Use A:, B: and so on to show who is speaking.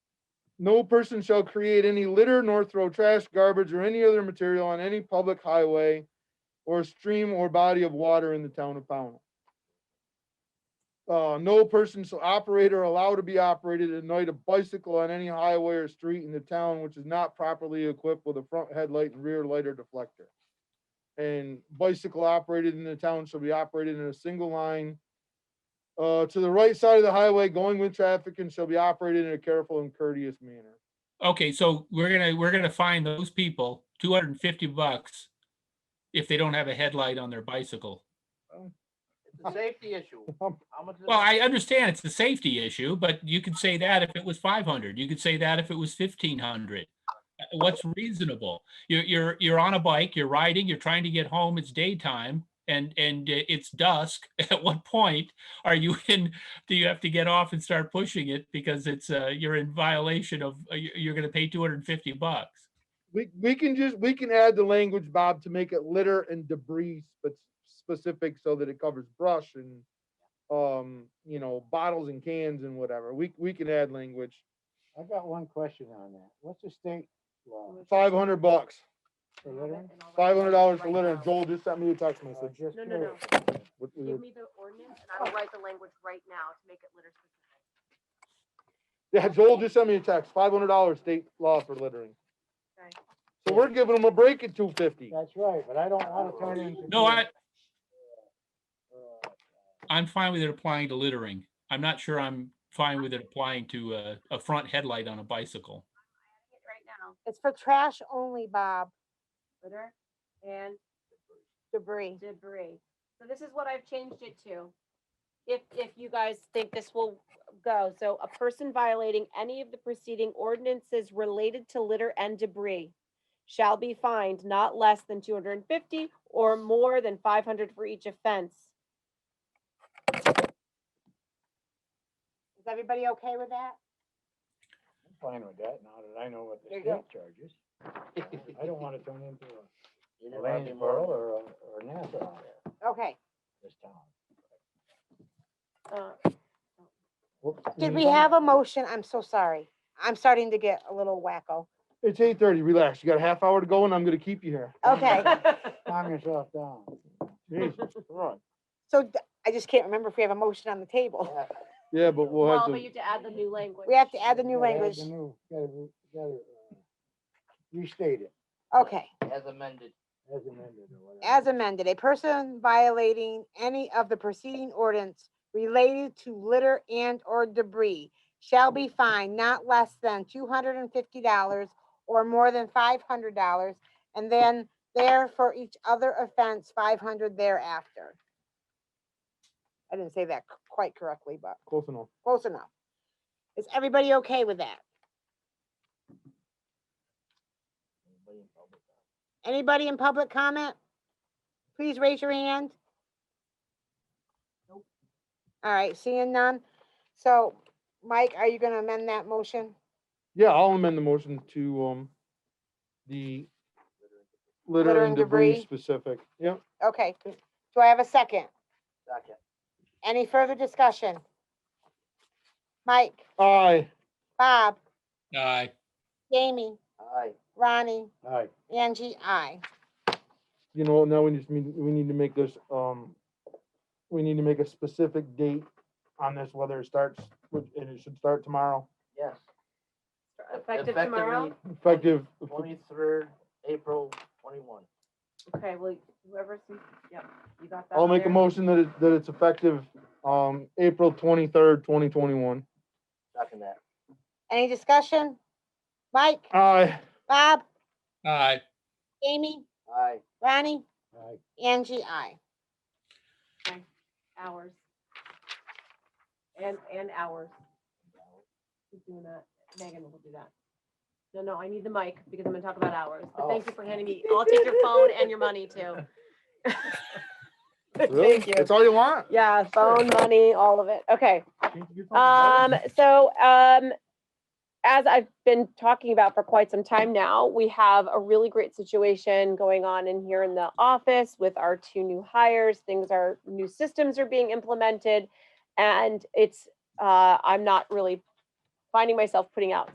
A: no person shall create any litter nor throw trash, garbage, or any other material on any public highway or stream or body of water in the town of Pownell. Uh, no person shall operate or allow to be operated at night a bicycle on any highway or street in the town which is not properly equipped with a front headlight and rear light or deflector. And bicycle operated in the town shall be operated in a single line uh, to the right side of the highway going with traffic and shall be operated in a careful and courteous manner.
B: Okay, so we're gonna, we're gonna find those people two hundred and fifty bucks if they don't have a headlight on their bicycle.
C: It's a safety issue.
D: Um,
C: How much? is
B: Well,
C: it?
B: I understand it's a safety issue, but you could say that if it was five hundred, you could say that if it was fifteen hundred. Uh, What's reasonable? You're, you're, you're on a bike, you're riding, you're trying to get home, it's daytime and, and uh, it's dusk. At what point are you in, do you have to get off and start pushing it because it's, uh, you're in violation of, uh, you- you're gonna pay two hundred and fifty bucks?
A: We, we can just, we can add the language, Bob, to make it litter and debris, but specific so that it covers brush and, um, you know, bottles and cans and whatever. We, we can add language.
D: I got one question on that. What's the state law
A: Five hundred bucks,
D: for littering?
A: five hundred dollars for litter. Joel just sent me a text
D: Uh,
A: message.
D: just
E: No, no, no.
D: curious.
A: What we
E: Give
A: were-
E: me the ordinance and I will write the language right now to make it litter specific.
A: Yeah, Joel just sent me a text, five hundred dollars state law for littering.
E: Okay.
A: So we're giving them a break at two fifty.
D: That's right, but I don't want to turn it into.
B: No, I,
D: uh,
B: I'm fine with it applying to littering. I'm not sure I'm fine with it applying to a, a front headlight on a bicycle.
E: It Right now,
F: It's for trash only, Bob,
E: litter and
F: debris.
E: debris. So this is what I've changed it to. If, if you guys think this will go, so a person violating any of the preceding ordinances related to litter and debris shall be fined not less than two hundred and fifty or more than five hundred for each offense.
F: Is everybody okay with that?
D: I'm fine with that now that I know what
C: There
D: the
C: you go.
D: state charges. I don't want to turn into a
C: You never had
D: Landsboro
C: before.
D: or, a- or Nassau area,
F: Okay.
D: this town.
E: Uh,
D: Mm-hmm.
F: Did we have a motion? I'm so sorry. I'm starting to get a little wacko.
A: It's eight thirty, relax. You got a half hour to go and I'm gonna keep you here.
F: Okay,
D: Calm yourself down.
A: Jesus Christ.
F: so d- I just can't remember if we have a motion on the table.
A: Yeah, but we'll have
E: Well,
A: to.
E: but you have to add the new language.
F: We have to add the new
D: Gotta have
F: language.
D: the new- Gotta, re- gotta, uh, restate it
F: Okay,
C: As amended.
D: as amended or whatever.
F: as amended, a person violating any of the preceding ordinance related to litter and or debris shall be fined not less than two hundred and fifty dollars or more than five hundred dollars, and then there for each other offense, five hundred thereafter. I didn't say that c- quite correctly, but
A: Close enough.
F: close enough. Is everybody okay with that?
D: Anybody in public eye?
F: Anybody in public comment? Please raise your hand. All right, seeing none. So, Mike, are you gonna amend that motion?
A: Yeah, I'll amend the motion to, um, the litter
F: Litter
A: and
F: and
A: debris
F: debris.
A: specific. Yep.
F: Okay, do I have a second?
C: Second.
F: Any further discussion? Mike,
A: Aye.
F: Bob,
B: Uh,
F: Jamie,
C: Aye.
F: Ronnie,
D: Aye,
F: Angie, I.
A: You know, now we just need, we need to make this, um, we need to make a specific date on this, whether it starts, with- and it should start tomorrow,
C: Yes.
E: Effective tomorrow?
A: effective.
C: Twenty-third, April twenty-one.
E: Okay, well, whoever's, yep, you got that.
A: I'll make a
E: there?
A: motion that it, that it's effective, um, April twenty-third, twenty twenty-one.
C: Second that.
F: Any discussion? Mike,
A: Aye.
F: Bob,
B: uh,
F: Jamie,
C: Aye.
F: Ronnie,
D: aye.
F: Angie, I.
E: hours. And, and hours. Who's doing that? Megan will do that. No, no, I need the mic because I'm gonna talk about hours, but thank you for handing me, I'll take your phone and your money too.
A: Really?
E: Thank you.
A: That's all you want?
E: Yeah, phone, money, all of it, okay.
A: Change your phone, brother.
E: Um, so, um, as I've been talking about for quite some time now, we have a really great situation going on in here in the office with our two new hires. Things are, new systems are being implemented. And it's, uh, I'm not really finding myself putting out